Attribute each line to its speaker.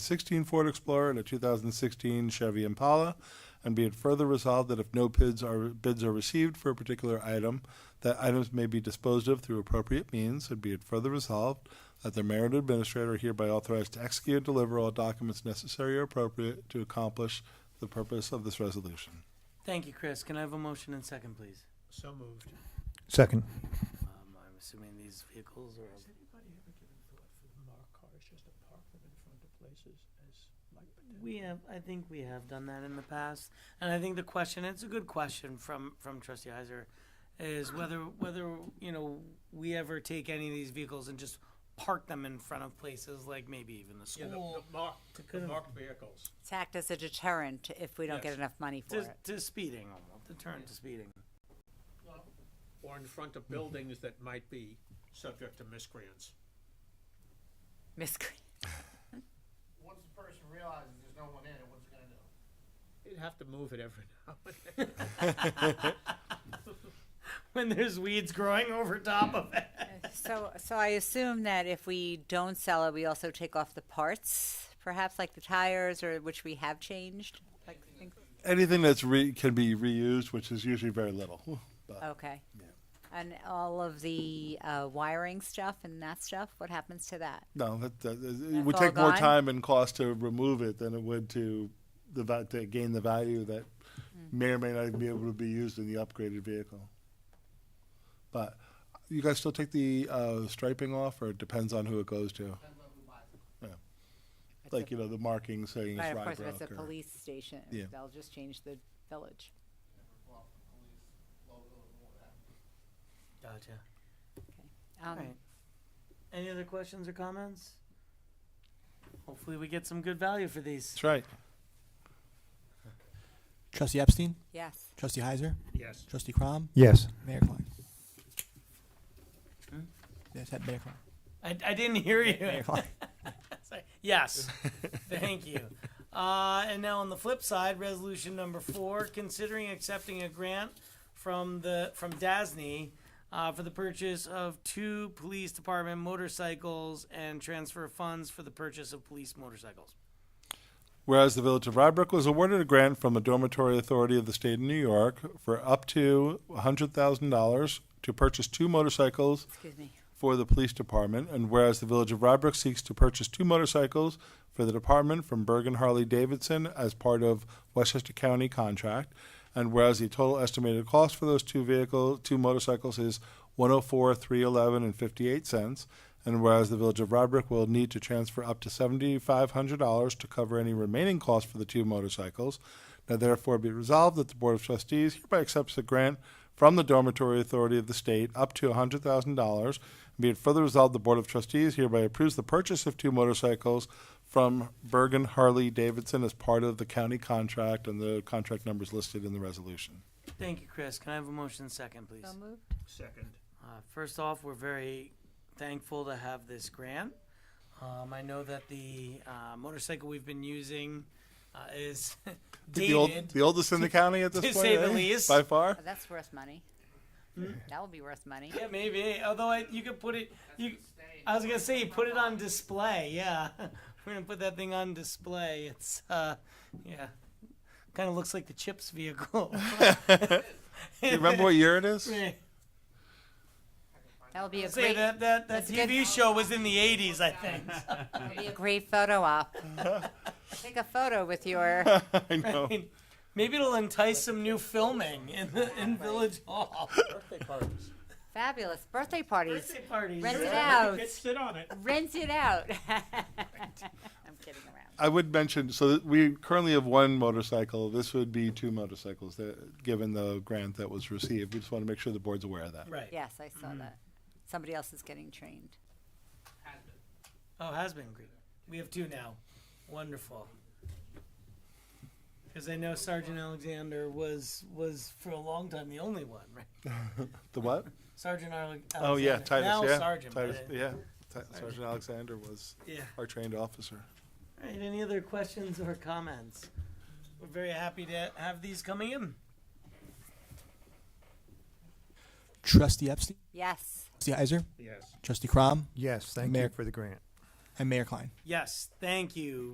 Speaker 1: 16 Ford Explorer and a 2016 Chevy Impala. And be it further resolved that if no bids are, bids are received for a particular item, that items may be disposed of through appropriate means. And be it further resolved that the mayor and administrator are hereby authorized to execute and deliver all documents necessary or appropriate to accomplish the purpose of this resolution.
Speaker 2: Thank you, Chris. Can I have a motion and second, please?
Speaker 3: So moved.
Speaker 4: Second.
Speaker 2: Um, I'm assuming these vehicles are.
Speaker 3: Has anybody ever given thought for the marked cars just to park them in front of places as like potential?
Speaker 2: We have, I think we have done that in the past, and I think the question, it's a good question from, from trustee Heiser, is whether, whether, you know, we ever take any of these vehicles and just park them in front of places like maybe even the
Speaker 3: Yeah, the,
Speaker 2: school.
Speaker 3: the marked, the
Speaker 2: could've-
Speaker 3: marked vehicles.
Speaker 5: It's act as a deterrent if we don't get
Speaker 3: Yes.
Speaker 5: enough money for
Speaker 2: To,
Speaker 5: it.
Speaker 2: to speeding, almost, deterrent to speeding.
Speaker 3: Or in front of buildings that might be subject to miscreants.
Speaker 5: Miss, Cre-
Speaker 6: once the person realizes there's no one in it, what's it gonna do?
Speaker 3: You'd have to move it every now and then.
Speaker 2: When there's weeds growing over top of it.
Speaker 5: so, so I assume that if we don't sell it, we also take off the parts, perhaps like the tires or which we have changed. Like, think-
Speaker 1: Anything that's re, can be reused, which is usually very little. But
Speaker 5: okay. And all of the uh, wiring stuff and that stuff, what happens to that?
Speaker 1: no, that, that, it
Speaker 5: That's
Speaker 1: would
Speaker 5: all
Speaker 1: take more
Speaker 5: gone?
Speaker 1: time and cost to remove it than it would to the va- to gain the value that
Speaker 5: Hmm.
Speaker 1: may or may not be able to be used in the upgraded vehicle. But you guys still take the uh, striping off, or it depends on who it goes to.
Speaker 5: It's
Speaker 1: Like
Speaker 5: a,
Speaker 1: you know, the marking saying
Speaker 5: right,
Speaker 1: it's
Speaker 5: of course, if it's
Speaker 1: Rybrook.
Speaker 5: a
Speaker 1: Or,
Speaker 5: police station,
Speaker 1: Yeah.
Speaker 5: they'll just change the village.
Speaker 2: Gotcha.
Speaker 5: Um,
Speaker 2: Alright. Any other questions or comments? Hopefully we get some good value for these.
Speaker 1: that's right.
Speaker 7: Trustee Epstein,
Speaker 5: Yes.
Speaker 7: Trustee Heiser,
Speaker 3: Yes.
Speaker 7: Trustee Crom,
Speaker 4: Yes.
Speaker 7: Mayor Klein. Yes, that Mayor Klein.
Speaker 2: I, I didn't hear you.
Speaker 7: Mayor Klein.
Speaker 2: Sorry. Yes. Thank you. Uh, and now on the flip side, resolution number four, considering accepting a grant from the from DASNY uh, for the purchase of two police department motorcycles and transfer funds for the purchase of police motorcycles.
Speaker 1: Whereas the Village of Rybrook was awarded a grant from the Dormitory Authority of the State of New York for up to $100,000 to purchase two motorcycles
Speaker 5: Excuse me.
Speaker 1: for the police department. And whereas the Village of Rybrook seeks to purchase two motorcycles for the department from Bergen Harley Davidson as part of Westchester County contract. And whereas the total estimated cost for those two vehicles, two motorcycles is one oh four, three eleven and fifty-eight cents. And whereas the Village of Rybrook will need to transfer up to seventy-five hundred dollars to cover any remaining costs for the two motorcycles. Now therefore be resolved that the Board of Trustees hereby accepts the grant from the Dormitory Authority of the State up to $100,000. Be it further resolved, the Board of Trustees hereby approves the purchase of two motorcycles from Bergen Harley Davidson as part of the county contract, and the contract numbers listed in the resolution.
Speaker 2: Thank you, Chris. Can I have a motion second, please?
Speaker 5: So moved.
Speaker 3: Second.
Speaker 2: Uh, first off, we're very thankful to have this grant. Um, I know that the uh, motorcycle we've been using uh, is
Speaker 1: The old-
Speaker 2: dated.
Speaker 1: The oldest in the county at this
Speaker 2: To
Speaker 1: point?
Speaker 2: say the
Speaker 1: eh?
Speaker 2: least.
Speaker 1: By far?
Speaker 5: Oh, that's worth money. That will be worth money.
Speaker 2: Yeah, maybe. Although I, you could put it. You, I was gonna say you put it on display. Yeah, we're gonna put that thing on display. It's uh, yeah, kind of looks like the Chips vehicle.
Speaker 1: Do you remember what year it is?
Speaker 5: That'll be a
Speaker 2: Say
Speaker 5: great,
Speaker 2: that that that
Speaker 5: That's a good-
Speaker 2: TV show was in the '80s, I think.
Speaker 5: that'll be a great photo op. Take a photo with your.
Speaker 1: I know.
Speaker 2: mean, Maybe it'll entice some new filming in the, in Village Hall.
Speaker 3: Birthday parties.
Speaker 5: Fabulous birthday parties.
Speaker 2: Birthday parties.
Speaker 5: Rent it out.
Speaker 3: Get sit on it.
Speaker 5: Rent it out. I'm kidding around.
Speaker 1: I would mention, so that we currently have one motorcycle. This would be two motorcycles, that- given the grant that was received. We just want to make sure the board's aware of that.
Speaker 2: Right.
Speaker 5: Yes, I saw that. Somebody else is getting trained.
Speaker 2: Oh, has been great. We have two now. Wonderful. Because I know Sergeant Alexander was was for a long time the only one, right?
Speaker 1: The what?
Speaker 2: Sergeant Arle- Alexander.
Speaker 1: Oh yeah, Titus.
Speaker 2: Now
Speaker 1: yeah,
Speaker 2: Sergeant.
Speaker 1: Titus,
Speaker 2: but, uh,
Speaker 1: yeah. Ti- Sergeant Alexander was
Speaker 2: yeah.
Speaker 1: our trained officer.
Speaker 2: All right. Any other questions or comments? We're very happy to have these coming in.
Speaker 7: Trustee Epstein,
Speaker 5: Yes.
Speaker 7: Trustee Heiser,
Speaker 3: Yes.
Speaker 7: Trustee Crom,
Speaker 4: Yes, thank
Speaker 7: Mayor-
Speaker 4: you for the grant.
Speaker 7: and Mayor Klein.
Speaker 2: Yes. Thank you.